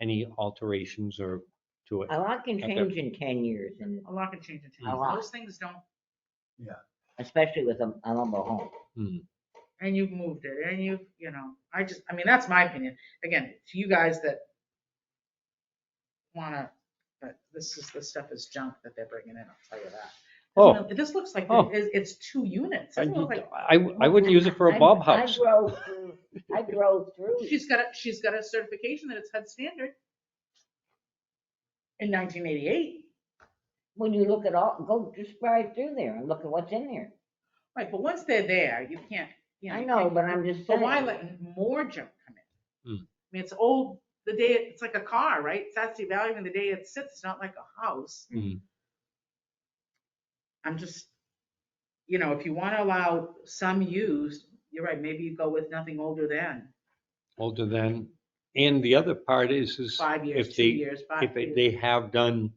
any alterations or to it. Uh, A lot can Okay. change in ten years and A lot can change in two A years. lot. Those things don't, especially with a, a mobile home. and you've moved it and you've, you know, I just, I mean, that's my opinion. Again, to you guys that wanna, but this is, this stuff is junk that they're bringing in, I'll tell you that. Oh, This looks like, Oh. it's, it's two units. I, Doesn't look like- I- I wouldn't use it for a I- Bob house. I drove through, I drove through. She's got a, she's got a certification that it's HUD standard in nineteen eighty-eight. When you look at all, go just right through there and look at what's in there. Right, but once they're there, you can't, you know. I you know, can't- but I'm just But saying. why let more junk come in? I Hmm. mean, it's old, the day, it's like a car, right? It's actually valuing the day it sits, it's not like a house. Hmm. I'm just, you know, if you want to allow some used, you're right, maybe you go with nothing older than Older than, and the other part is, is five years, If two they- years, five if they, years. they have done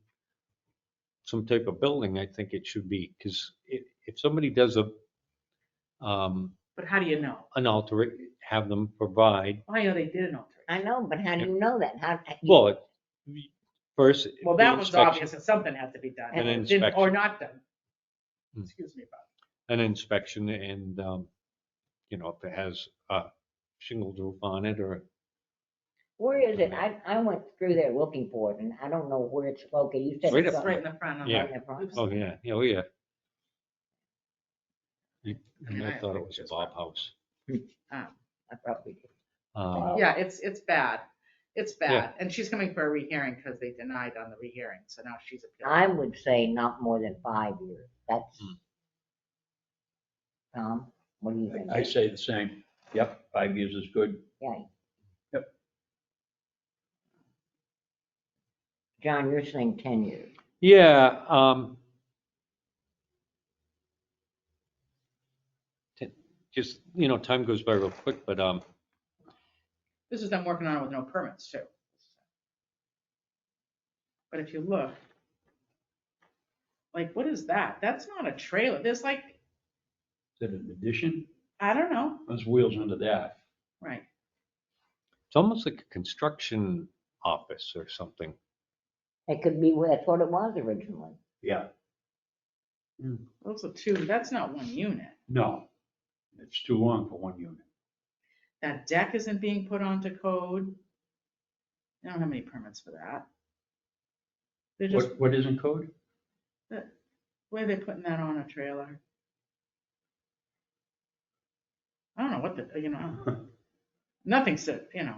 some type of building, I think it should be, because if, if somebody does a, um, But how do you know? an alter, have them provide, Well, you know, they did an alteration. I know, but how do you know that? How? well, it- first. Well, the that was inspection- obvious, that something had to be done. An It didn't- Or inspection. not done. Hmm. Excuse me, Bob. An inspection and, um, you know, if it has a shingle roof on it or, Where is it? I, I went through there looking for it and I don't know where it's located. You said. Right up it's It's on- right in the front. on the- Yeah. on the front. Oops. oh, yeah, oh, yeah. And I I have thought it was a pictures. Bob house. Um, I probably did. Um, Yeah, it's, it's bad. It's Yeah. bad. And she's coming for a rehearing because they denied on the rehearing, so now she's I appealing. would say not more than five years. That's. Hmm. Tom, what do you think? I say the same. Yep, five years is good. Yeah. Yep. John, you're saying ten years. Yeah, um. t- Just, you know, time goes by real quick, but, um, This is them working on it with no permits too. But if you look, like, what is that? That's not a trailer. There's like, Is it an addition? I don't know, There's wheels under that. right? it's almost like a construction office or something. It could be, well, that's what it was originally. Yeah. Those are two, that's not one unit. No, it's too long for one unit. That deck isn't being put onto code. I don't have any permits for that. They're just, What, what is in code? where are they putting that on a trailer? I don't know what the, you know, nothing said, you know.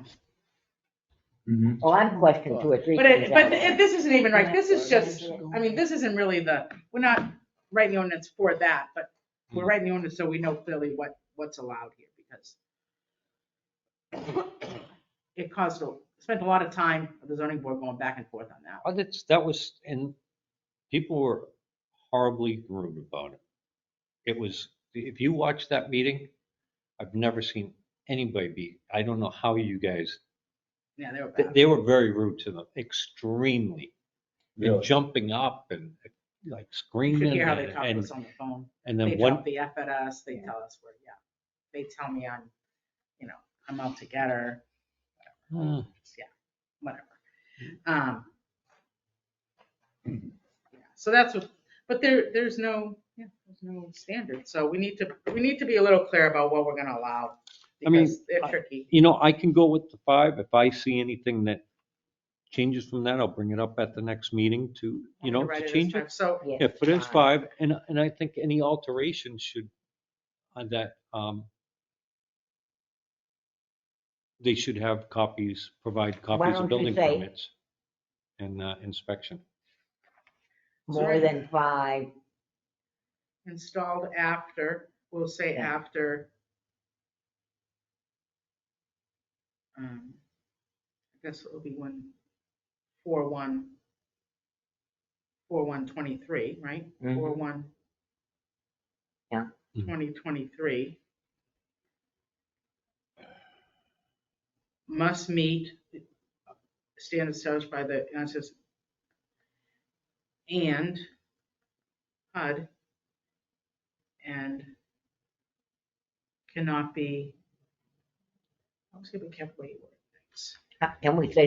Mhm. Well, Oh, I've questioned two or three But it, things. but out it- there. this isn't even right, this is Yeah. just, I mean, this isn't really the, we're not writing the ordinance for that, but we're Hmm. writing the ordinance so we know clearly what, what's allowed here, because it caused, a spent a lot of time, the zoning board going back and forth on that. Oh, that's, that was, and people were horribly rude about it. It was, if you watch that meeting, I've never seen anybody be, I don't know how you guys, Yeah, they were they, bad. they were very rude to them, extremely. And Really? jumping up and like You could screaming hear how they and, talked to and us on the phone. and They then one, drop the F at us, they tell us we're, yeah, they tell me I'm, you know, I'm out to get her, Hmm. whatever. Um. yeah, So that's what, but there, there's no, yeah, there's no standard, so we need to, we need to be a little clear about what we're gonna allow. I mean, Because they're I- tricky, you know, I can go with the five. If I see anything that changes from that, I'll bring it up at the next meeting to, you know, Right, to it is change five. it. So, Yeah, Yeah, put in five, and, and I think any alteration should, on that, um, they should have copies, provide copies don't you of building say- permits and uh, inspection. More than five, installed after, we'll say Yeah. after. um, I guess it'll be one, four, one, four, one, twenty-three, right? Mhm. Four, one. Yeah. Mhm. Twenty twenty-three. Must meet standards established by the, and it says, and HUD and cannot be, I'm just gonna be careful what you E word things. How- can we say